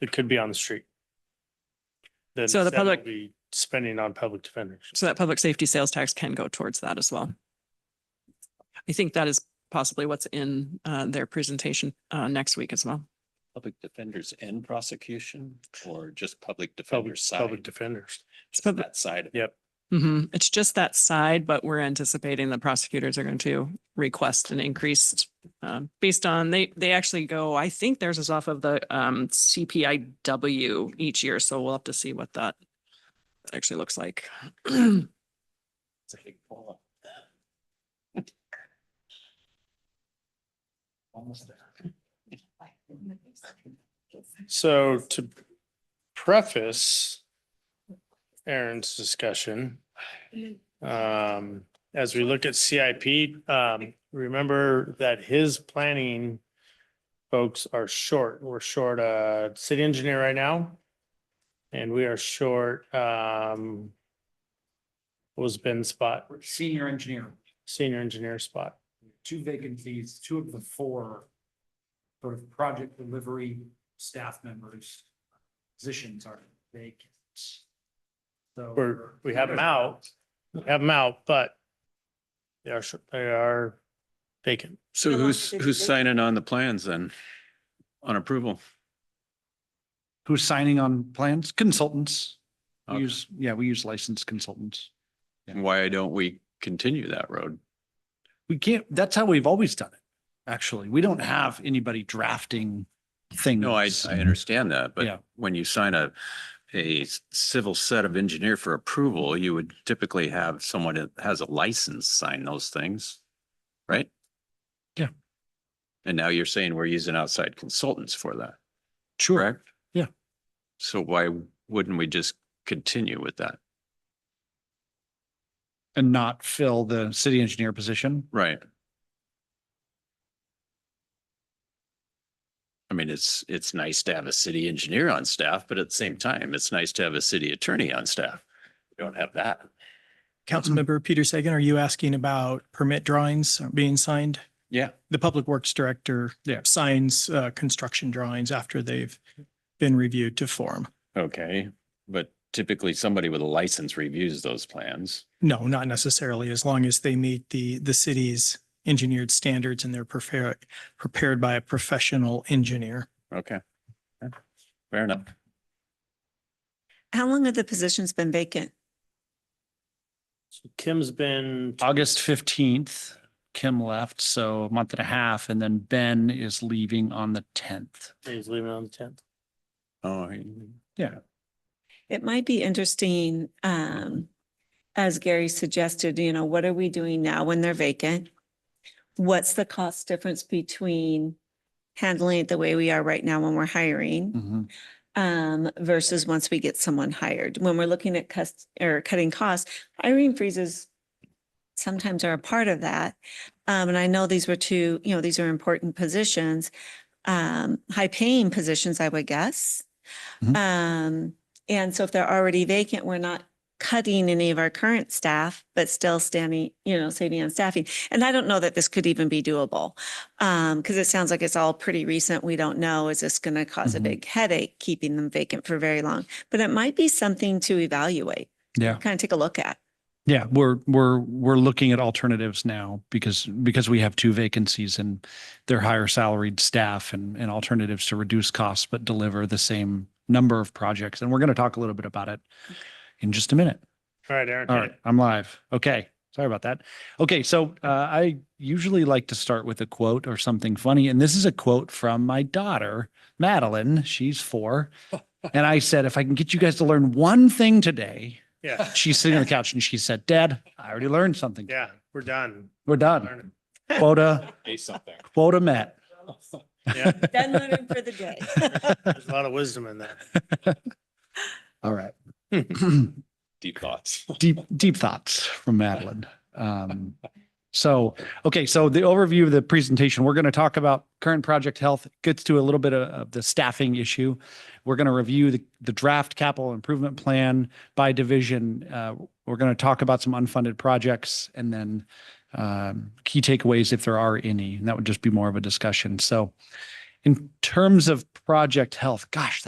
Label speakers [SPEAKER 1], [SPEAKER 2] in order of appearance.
[SPEAKER 1] It could be on the street. Then
[SPEAKER 2] So the
[SPEAKER 1] that will
[SPEAKER 2] public-
[SPEAKER 1] Be spending on public defenders.
[SPEAKER 2] So that public safety sales tax can go towards that as well. I think that is possibly what's in uh, their presentation uh, next week as well.
[SPEAKER 3] Public defenders and prosecution or just public
[SPEAKER 1] Public,
[SPEAKER 3] defenders
[SPEAKER 1] public
[SPEAKER 3] side?
[SPEAKER 1] defenders.
[SPEAKER 2] It's
[SPEAKER 3] Just
[SPEAKER 2] pub-
[SPEAKER 3] That side.
[SPEAKER 1] Yeah.
[SPEAKER 2] Mhm. It's just that side, but we're anticipating the prosecutors are going to request an increased um, based on, they, they actually go, I think theirs is off of the um, CPIW each year, so we'll have to see what that actually looks like.
[SPEAKER 3] It's a big pull-up. Almost there.
[SPEAKER 1] So to preface Aaron's discussion, um, as we look at CIP, um, remember that his planning folks are short. We're short a city engineer right now. And we are short, um, what was Ben's spot,
[SPEAKER 4] senior engineer,
[SPEAKER 1] senior engineer spot?
[SPEAKER 4] two vacancies, two of the four sort of project delivery staff members positions are vacant. So.
[SPEAKER 1] We're- we have them out. We Have them out, but they are, short- they are vacant.
[SPEAKER 5] So who's, who's signing on the plans then? On approval?
[SPEAKER 4] Who's signing on plans? Consultants. We
[SPEAKER 5] Okay.
[SPEAKER 4] use, yeah, we use licensed consultants.
[SPEAKER 5] Why don't we continue that road?
[SPEAKER 4] We can't, that's how we've always done it, actually. We don't have anybody drafting things.
[SPEAKER 5] No, I, I understand that,
[SPEAKER 4] Yeah.
[SPEAKER 5] but when you sign a, a civil set of engineer for approval, you would typically have someone that has a license sign those things, right?
[SPEAKER 4] Yeah.
[SPEAKER 5] And now you're saying we're using outside consultants for that,
[SPEAKER 4] Sure.
[SPEAKER 5] correct?
[SPEAKER 4] Yeah.
[SPEAKER 5] So why wouldn't we just continue with that?
[SPEAKER 4] And not fill the city engineer position.
[SPEAKER 5] Right. I mean, it's, it's nice to have a city engineer on staff, but at the same time, it's nice to have a city attorney on staff. We don't have that.
[SPEAKER 6] Councilmember Peter Sagan, are you asking about permit drawings being signed?
[SPEAKER 5] Yeah.
[SPEAKER 6] The Public Works Director
[SPEAKER 4] Yeah.
[SPEAKER 6] signs uh, construction drawings after they've been reviewed to form.
[SPEAKER 5] Okay, but typically somebody with a license reviews those plans.
[SPEAKER 6] No, not necessarily, as long as they meet the, the city's engineered standards and they're prepared, prepared by a professional engineer.
[SPEAKER 5] Okay. Fair enough.
[SPEAKER 7] How long have the positions been vacant?
[SPEAKER 1] So Kim's been
[SPEAKER 4] August fifteenth, Kim left, so a month and a half, and then Ben is leaving on the tenth.
[SPEAKER 1] He's leaving on the tenth.
[SPEAKER 5] Oh,
[SPEAKER 7] It might be interesting, um, as Gary suggested, you know, what are we doing now when they're vacant? What's the cost difference between handling it the way we are right now when we're hiring?
[SPEAKER 4] Mm-hmm.
[SPEAKER 7] Um, versus once we get someone hired, when we're looking at cuts or cutting costs, hiring freezes sometimes are a part of that. Um, and I know these were two, you know, these are important positions, um, high paying positions, I would guess.
[SPEAKER 4] Mhm.
[SPEAKER 7] Um, and so if they're already vacant, we're not cutting any of our current staff, but still standing, you know, saving on staffing. And I don't know that this could even be doable. Um, because it sounds like it's all pretty recent. We don't know, is this going to cause a
[SPEAKER 4] Mhm.
[SPEAKER 7] big headache, keeping them vacant for very long? But it might be something to evaluate,
[SPEAKER 4] Yeah,
[SPEAKER 7] kind of take a look at.
[SPEAKER 4] yeah, we're, we're, we're looking at alternatives now because, because we have two vacancies and they're higher salaried staff and, and alternatives to reduce costs, but deliver the same number of projects. And we're going to talk a little bit about it in just a minute.
[SPEAKER 1] All right, Aaron.
[SPEAKER 4] All right, I'm live. Okay, sorry about that. Okay, so uh, I usually like to start with a quote or something funny, and this is a quote from my daughter, Madeline. She's four. And I said, if I can get you guys to learn one thing today,
[SPEAKER 1] Yeah,
[SPEAKER 4] she's sitting on the couch and she said, Dad, I already learned something.
[SPEAKER 1] yeah, we're done.
[SPEAKER 4] We're done.
[SPEAKER 1] Learning.
[SPEAKER 4] Quota,
[SPEAKER 3] something.
[SPEAKER 4] quota met.
[SPEAKER 1] Yeah,
[SPEAKER 7] Done learning for the day.
[SPEAKER 1] there's a lot of wisdom in that.
[SPEAKER 4] All right.
[SPEAKER 3] Deep thoughts.
[SPEAKER 4] deep deep thoughts from Madeline. Um, so okay, so the overview of the presentation, we're going to talk about current project health. Gets to a little bit of, of the staffing issue. We're going to review the, the draft capital improvement plan by division. Uh, we're going to talk about some unfunded projects and then um, key takeaways if there are any. And that would just be more of a discussion. So, in terms of project health, gosh,